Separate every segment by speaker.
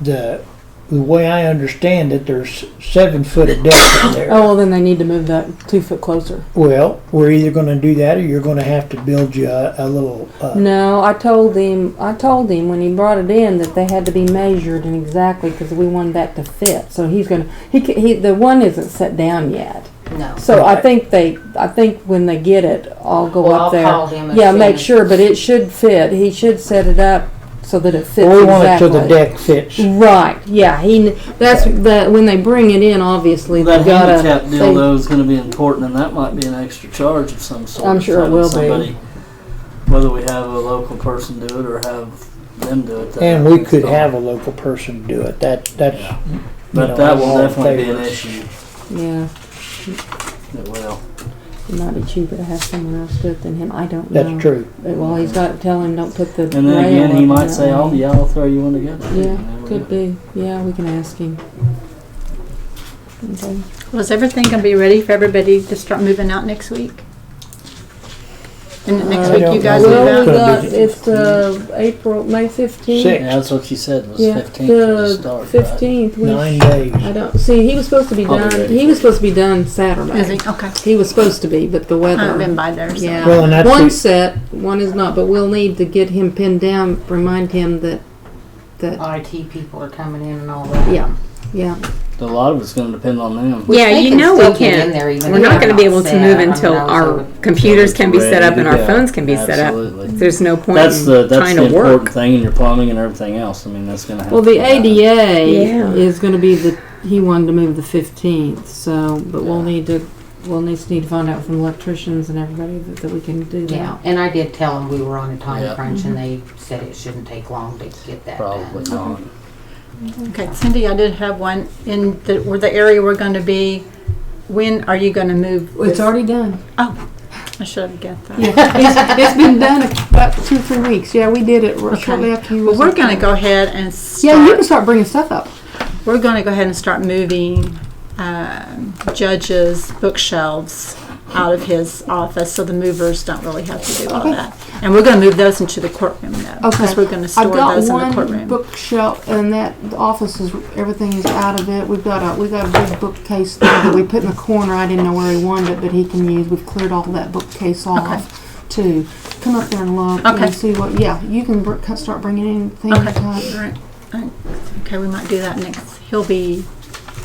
Speaker 1: the, the way I understand it, there's seven foot of depth in
Speaker 2: Oh,
Speaker 1: there.
Speaker 2: well, then they need to move that two foot closer.
Speaker 1: Well, we're either gonna do that or you're gonna have to build you a, a little,
Speaker 3: Oh.
Speaker 1: uh,
Speaker 2: No, I told him, I told him when he brought it in that they had to be measured and exactly because we wanted that to fit. So he's gonna, he, ca- he, the one isn't set down yet.
Speaker 3: No.
Speaker 2: So I
Speaker 1: Right.
Speaker 2: think they, I think when they get it, I'll go
Speaker 3: Well,
Speaker 2: up
Speaker 3: I'll
Speaker 2: there.
Speaker 3: call him and
Speaker 2: Yeah,
Speaker 3: see
Speaker 2: make
Speaker 3: him.
Speaker 2: sure, but it should fit. He should set it up so that it fits
Speaker 1: we
Speaker 2: exactly.
Speaker 1: want it so the deck fits.
Speaker 2: Right, yeah, he, kn- that's, the when they bring it in, obviously, they
Speaker 4: That
Speaker 2: gotta.
Speaker 4: handicap
Speaker 2: they-
Speaker 4: deal though is gonna be important, and that might be an extra charge of some sort.
Speaker 2: I'm sure it
Speaker 4: having
Speaker 2: will be.
Speaker 4: somebody- Whether we have a local person do it or have them do
Speaker 2: Mm.
Speaker 4: it. that
Speaker 1: And we
Speaker 4: happens,
Speaker 1: could
Speaker 4: so-
Speaker 1: have a local person do it. That, that's. you know,
Speaker 4: But that
Speaker 1: that's
Speaker 4: will
Speaker 1: all in
Speaker 4: definitely be an
Speaker 1: favor.
Speaker 4: issue,
Speaker 2: Yeah,
Speaker 4: it will.
Speaker 2: it might be cheaper to have someone else do it than him, I don't know.
Speaker 1: That's true.
Speaker 2: But, Well, he's got to tell him, don't put the rail.
Speaker 4: And then again, he
Speaker 2: up
Speaker 4: might
Speaker 2: that
Speaker 4: say, "I'll,
Speaker 2: way."
Speaker 4: yeah, I'll throw you one together." You
Speaker 2: Yeah,
Speaker 4: never know.
Speaker 2: could be, yeah, we can ask him. Okay.
Speaker 5: Was everything gonna be ready for everybody to start moving out next week? And next
Speaker 2: Uh,
Speaker 5: week
Speaker 1: I
Speaker 5: you
Speaker 1: don't
Speaker 5: guys
Speaker 1: know.
Speaker 5: move
Speaker 2: Well,
Speaker 5: out?
Speaker 2: we
Speaker 1: Gonna
Speaker 2: got,
Speaker 1: be
Speaker 2: it's, uh, April, May fifteenth.
Speaker 1: Six.
Speaker 4: Yeah, that's what you said, was
Speaker 2: Yeah,
Speaker 4: fifteenth to
Speaker 2: the
Speaker 4: start, right?
Speaker 2: fifteenth,
Speaker 1: Nine
Speaker 2: which,
Speaker 1: days.
Speaker 2: I don't, see, he was supposed to be
Speaker 4: I'll be ready
Speaker 2: done,
Speaker 4: for
Speaker 2: he
Speaker 4: it.
Speaker 2: was supposed to be done Saturday.
Speaker 5: Is it, okay.
Speaker 2: He was supposed to be, but the
Speaker 5: I haven't been
Speaker 2: weather.
Speaker 5: by there, so.
Speaker 2: Yeah.
Speaker 1: Well, and that's
Speaker 2: One
Speaker 1: the-
Speaker 2: set, one is not, but we'll need to get him pinned down, remind him that, that,
Speaker 3: IT people are coming in and all that.
Speaker 2: Yeah. yeah.
Speaker 4: A lot of it's gonna depend on them.
Speaker 3: Which
Speaker 6: Yeah,
Speaker 3: they
Speaker 6: you
Speaker 3: can
Speaker 6: know
Speaker 3: still get
Speaker 6: we
Speaker 3: in
Speaker 6: can't-
Speaker 3: there even
Speaker 6: We're
Speaker 3: if
Speaker 6: not
Speaker 3: they're
Speaker 6: going to be able to
Speaker 3: set.
Speaker 6: move
Speaker 3: I mean,
Speaker 6: until
Speaker 3: I was
Speaker 6: our
Speaker 3: over-
Speaker 6: computers can be set up
Speaker 4: Ready
Speaker 6: and
Speaker 4: to
Speaker 6: our
Speaker 4: go.
Speaker 6: phones can be set up.
Speaker 4: Absolutely.
Speaker 6: There's no point
Speaker 4: That's the,
Speaker 6: in
Speaker 4: that's
Speaker 6: trying
Speaker 4: the
Speaker 6: to
Speaker 4: important
Speaker 6: work.
Speaker 4: thing in your plumbing and everything else, I mean, that's gonna have.
Speaker 2: Well,
Speaker 4: to
Speaker 2: the
Speaker 4: be done.
Speaker 2: ADA
Speaker 6: Yeah.
Speaker 2: is gonna be the, he wanted to move the fifteenth, so, but we'll need to, we'll need, need to find out from electricians and everybody that, that we can do
Speaker 3: Yeah,
Speaker 2: that.
Speaker 3: and I did tell them we were on a
Speaker 4: Yeah.
Speaker 3: time crunch and
Speaker 6: Mm-hmm.
Speaker 3: they said it shouldn't take long to get that
Speaker 4: Probably
Speaker 3: done.
Speaker 4: not.
Speaker 5: Okay, Cindy, I did have one in the, where the area we're gonna be. When are you gonna move?
Speaker 2: It's
Speaker 5: this-
Speaker 2: already done.
Speaker 5: I should have got that.
Speaker 2: Yeah, it's, it's been done about two, three weeks. Yeah, we did it shortly after you.
Speaker 5: Well,
Speaker 2: was
Speaker 5: we're
Speaker 2: up
Speaker 5: gonna
Speaker 2: there.
Speaker 5: go ahead
Speaker 2: Yeah,
Speaker 5: and
Speaker 2: you
Speaker 5: start
Speaker 2: can start bringing stuff up.
Speaker 5: We're going to go ahead and start moving um, judges' bookshelves out of his office, so the movers don't really have to do all
Speaker 2: Okay.
Speaker 5: that. And we're going to move those into the courtroom now, because
Speaker 2: Okay.
Speaker 5: we're going to
Speaker 2: I
Speaker 5: store
Speaker 2: got
Speaker 5: those in the
Speaker 2: one
Speaker 5: courtroom.
Speaker 2: bookshelf, and that office is everything is out of it. We've got a we got a big bookcase thing that we put in the corner. I didn't know where he wanted it, but he can use. We've cleared all that bookcase off too. Come up there and look
Speaker 5: Okay.
Speaker 2: and see what. Yeah, you can br- cut- start bringing in things.
Speaker 5: Okay,
Speaker 2: up.
Speaker 5: all right. All right. Okay, we might do that next. He'll be,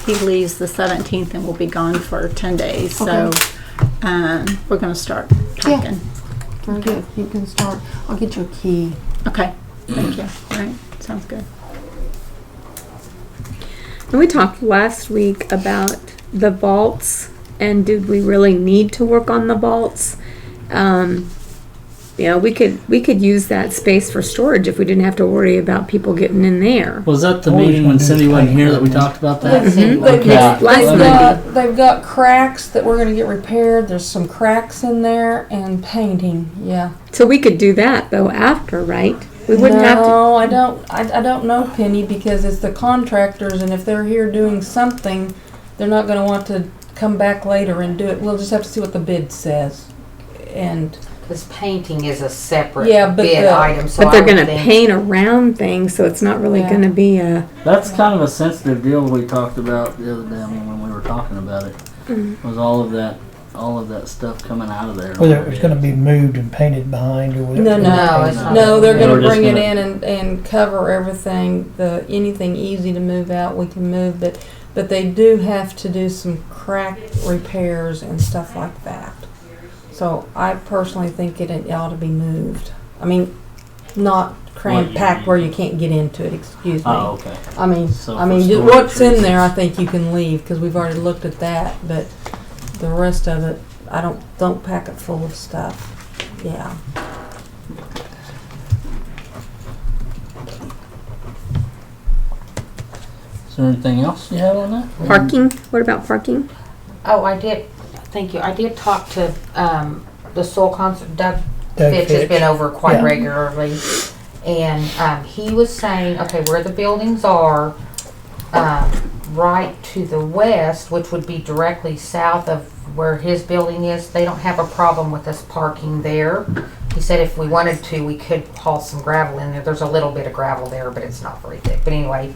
Speaker 5: he leaves the 17th and will be gone for 10 days, so
Speaker 2: Okay.
Speaker 5: um, we're going to start
Speaker 2: Yeah.
Speaker 5: packing.
Speaker 2: Very good. You can start. I'll get you a key.
Speaker 5: Okay, thank you. All right, sounds good.
Speaker 6: And we talked last week about the vaults and did we really need to work on the vaults? Um, you know, we could, we could use that space for storage if we didn't have to worry about people getting in there.
Speaker 4: Was that the
Speaker 1: Always
Speaker 4: meeting
Speaker 1: wanna
Speaker 4: when
Speaker 1: do is
Speaker 4: Cindy wasn't
Speaker 1: paint
Speaker 4: here that we
Speaker 1: that one.
Speaker 4: talked about that?
Speaker 5: Mm-hmm.
Speaker 2: They've,
Speaker 4: Yeah.
Speaker 6: Last
Speaker 2: they've
Speaker 6: Monday.
Speaker 2: got they've got cracks that we're gonna get repaired. There's some cracks in there and painting. Yeah.
Speaker 6: So we could do that though after, right? We wouldn't
Speaker 2: no,
Speaker 6: have to.
Speaker 2: I don't. I, I don't know Penny because it's the contractors, and if they're here doing something, they're not gonna want to come back later and do it. We'll just have to see what the bid says. And
Speaker 3: This painting is a separate
Speaker 2: Yeah, but
Speaker 3: bid
Speaker 2: the-
Speaker 3: item, so
Speaker 6: But they're
Speaker 3: I would
Speaker 6: gonna
Speaker 3: think.
Speaker 6: paint around things, so it's not really
Speaker 2: Yeah.
Speaker 6: gonna be a,
Speaker 4: That's kind of a sensitive deal we talked about the other day, I mean, when we were talking about it,
Speaker 2: Mm-hmm.
Speaker 4: was all of that, all of that stuff coming out of there.
Speaker 1: Whether it was gonna be moved and painted behind or whatever.
Speaker 2: No,
Speaker 3: No, it's not.
Speaker 2: no, they're
Speaker 4: They
Speaker 2: gonna
Speaker 4: were just
Speaker 2: bring it
Speaker 4: gonna-
Speaker 2: in and, and cover everything. The anything easy to move out, we can move. But but they do have to do some crack repairs and stuff like that. So I personally think it, it ought to be moved. I mean, not
Speaker 4: What
Speaker 2: cram
Speaker 4: you
Speaker 2: packed where
Speaker 4: mean?
Speaker 2: you can't get into it. Excuse me.
Speaker 4: Oh, okay.
Speaker 2: I mean,
Speaker 4: So
Speaker 2: I
Speaker 4: for
Speaker 2: mean, ju-
Speaker 4: storage
Speaker 2: what's in there, I
Speaker 4: reasons.
Speaker 2: think you can leave, because we've already looked at that, but the rest of it, I don't, don't pack it full of stuff, yeah.
Speaker 4: Is there anything else you have on that?
Speaker 6: parking, what about parking?
Speaker 3: Oh, I did, thank you, I did talk to, um, the soul concert, Doug
Speaker 1: Doug
Speaker 3: Fitch has
Speaker 1: Fitch.
Speaker 3: been over
Speaker 1: Yeah.
Speaker 3: quite regularly. And, um, he was saying, okay, where the buildings are, um, right to the west, which would be directly south of where his building is, they don't have a problem with us parking there. He said if we wanted to, we could haul some gravel in there. There's a little bit of gravel there, but it's not very thick. But anyway,